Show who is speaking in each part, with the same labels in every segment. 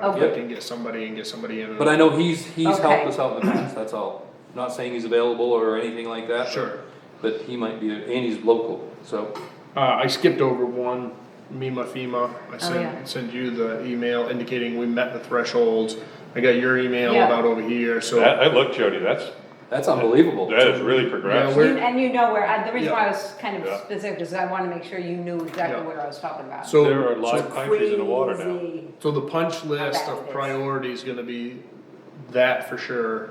Speaker 1: conflict
Speaker 2: Okay.
Speaker 1: and get somebody and get somebody in.
Speaker 2: But I know he's, he's helped
Speaker 3: Okay.
Speaker 2: us out in the past, that's all. Not saying he's available or anything like that. but-
Speaker 1: Sure.
Speaker 2: But he might be, and he's local, so,
Speaker 1: Uh, I skipped over one, MEMA FEMA. I
Speaker 3: Oh, yeah.
Speaker 1: sent, sent you the email indicating we met the thresholds. I got your email
Speaker 3: Yeah.
Speaker 1: about over here, so.
Speaker 4: That, I look, Jody, that's,
Speaker 2: that's unbelievable.
Speaker 4: that is really
Speaker 1: Yeah,
Speaker 4: progressive.
Speaker 1: we're-
Speaker 3: You- And you know where, I- the reason why I
Speaker 1: Yeah.
Speaker 3: was kind
Speaker 4: Yeah.
Speaker 3: of specific is I wanna make sure you knew exactly
Speaker 1: Yeah.
Speaker 3: what I was talking about.
Speaker 1: So-
Speaker 4: There are live countries in the water now.
Speaker 5: Crazy.
Speaker 1: So the punch list
Speaker 3: bad it
Speaker 1: of
Speaker 3: is.
Speaker 1: priority is gonna be that for sure,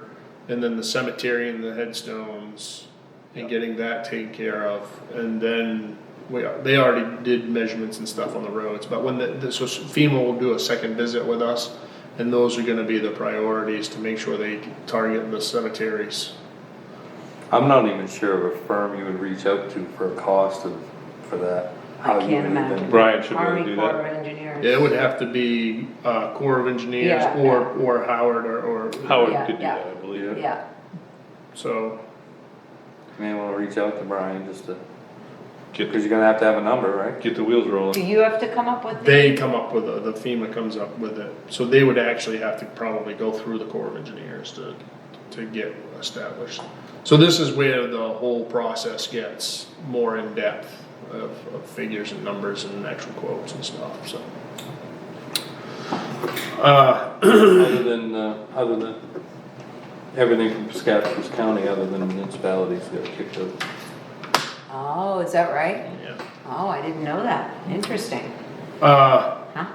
Speaker 1: and then the cemetery and the headstones. And getting that taken care of, and then we, are- they already did measurements and stuff on the roads, but when the, the- so FEMA will do a second visit with us. And those are gonna be the priorities to make sure they target the cemeteries.
Speaker 2: I'm not even sure of a firm you would reach out to for a cost of, for that.
Speaker 3: I
Speaker 2: How you
Speaker 3: can't
Speaker 2: would even-
Speaker 3: imagine.
Speaker 4: Brian should be able to
Speaker 3: Army
Speaker 4: do
Speaker 3: Corps
Speaker 4: that.
Speaker 3: of Engineers.
Speaker 1: It would have to be, uh, Corps of Engineers
Speaker 3: Yeah.
Speaker 1: or, or Howard or, or,
Speaker 4: Howard
Speaker 3: Yeah,
Speaker 4: could do
Speaker 3: yeah.
Speaker 4: that, I believe.
Speaker 3: Yeah,
Speaker 1: so,
Speaker 2: May wanna reach out to Brian just to, cause
Speaker 4: Get,
Speaker 2: you're gonna have to have a number, right?
Speaker 4: get the wheels
Speaker 3: do
Speaker 4: rolling.
Speaker 3: you have to come up with? the-
Speaker 1: They come up with, it, the FEMA comes up with it, so they would actually have to probably go through the Corps of Engineers to, to get established. So this is where the whole process gets more in-depth of, of figures and numbers and actual quotes and stuff, so. Uh,
Speaker 2: Other than, uh, other than, everything from Piscataquis County, other than municipalities got kicked out.
Speaker 3: Oh, is that right?
Speaker 1: yeah.
Speaker 3: Oh, I didn't know that. Interesting,
Speaker 1: Uh,
Speaker 3: huh?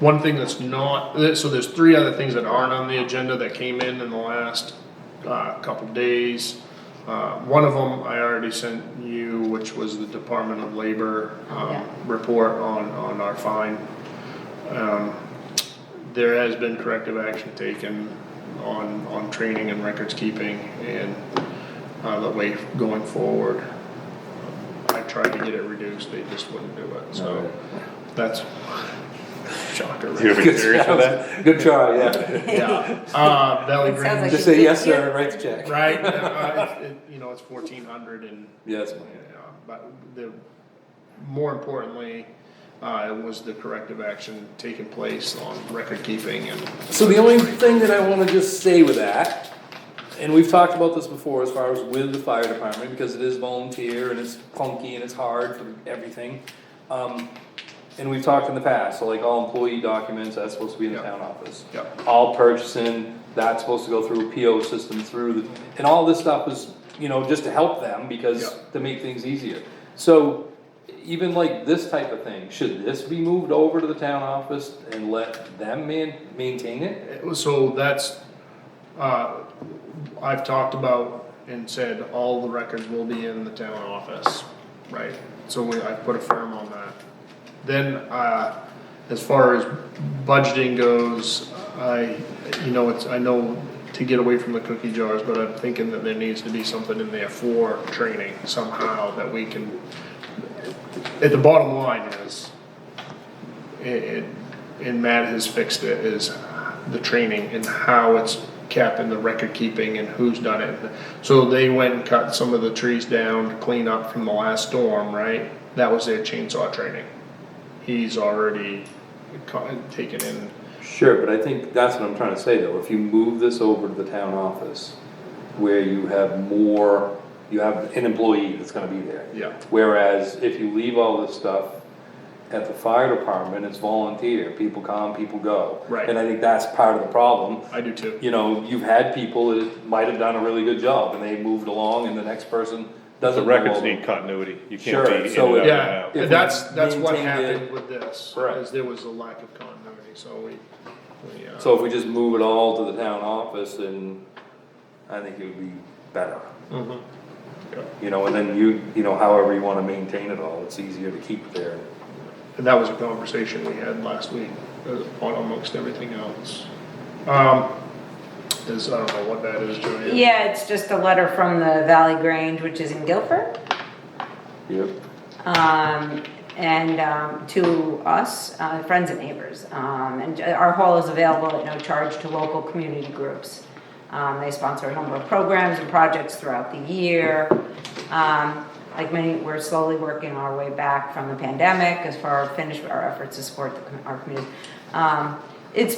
Speaker 1: One thing that's not, so there's three other things that aren't on the agenda that came in in the last, uh, couple days. Uh, one of them I already sent you, which was the Department of Labor,
Speaker 3: Yeah.
Speaker 1: um, report on, on our fine. Um, there has been corrective action taken on, on training and records keeping and, uh, the way going forward. I tried to get it reduced, they just wouldn't do it, so that's shocker. right?
Speaker 4: You're serious with that?
Speaker 2: Good try, yeah.
Speaker 1: Yeah, uh, belly
Speaker 3: It sounds
Speaker 1: green,
Speaker 2: Just say yes, sir, and write the check.
Speaker 1: right, uh, it- it- you know, it's fourteen hundred and,
Speaker 2: Yes,
Speaker 1: yeah, but the, more importantly, uh, it was the corrective action taking place on record keeping and.
Speaker 2: So the only thing that I wanna just say with that, and we've talked about this before as far as with the fire department, because it is volunteer and it's clunky and it's hard for everything. Um, and we've talked in the past, so like all employee documents, that's supposed to be in the
Speaker 1: Yeah.
Speaker 2: town office.
Speaker 1: Yeah.
Speaker 2: All purchasing, that's supposed to go through a PO system through, the and all this stuff is, you know, just to help them, because,
Speaker 1: Yeah.
Speaker 2: to make things easier. So, even like this type of thing, should this be moved over to the town office and let them man, maintain it?
Speaker 1: It was- So that's, uh, I've talked about and said all the records will be in the town office, right? So we, I put a firm on that. Then, uh, as far as budgeting goes, I, you know, it's, I know to get away from the cookie jars, but I'm thinking that there needs to be something in there for training somehow that we can. At the bottom line is, it, it- and Matt has fixed it, is the training and how it's kept and the record keeping and who's done it. So they went and cut some of the trees down to clean up from the last storm, right? That was their chainsaw training. He's already co- taken in,
Speaker 2: Sure, but I think that's what I'm trying to say though, if you move this over to the town office, where you have more, you have an employee that's gonna be there.
Speaker 1: yeah,
Speaker 2: Whereas if you leave all this stuff at the fire department, it's volunteer, people come, people go.
Speaker 1: Right.
Speaker 2: And I think that's part of the problem,
Speaker 1: I do too.
Speaker 2: you know, you've had people that might have done a really good job and they moved along and the next person
Speaker 4: The
Speaker 2: doesn't. move
Speaker 4: records
Speaker 2: over.
Speaker 4: need continuity. You
Speaker 2: Sure,
Speaker 4: can't be in and
Speaker 2: so
Speaker 4: out
Speaker 2: it-
Speaker 4: and
Speaker 1: Yeah,
Speaker 4: out.
Speaker 2: If we
Speaker 1: that's, that's what
Speaker 2: maintained it-
Speaker 1: happened with this,
Speaker 2: Right.
Speaker 1: is there was a lack of continuity, so we, we, uh,
Speaker 2: So if we just move it all to the town office and I think it would be better.
Speaker 1: mhm. Yeah.
Speaker 2: You know, and then you, you know, however you wanna maintain it all, it's easier to keep it there.
Speaker 1: And that was a conversation we had last week, uh, on amongst everything else. Um, is, I don't know what that is, Joanne.
Speaker 3: Yeah, it's just a letter from the Valley Grange, which is in Guilford.
Speaker 2: Yep.
Speaker 3: um, and um, to us, uh, friends and neighbors. Um, and our hall is available at no charge to local community groups. Um, they sponsor a number of programs and projects throughout the year. Um, like many, we're slowly working our way back from the pandemic as far as finish our efforts to support the, com- our community. Um, it's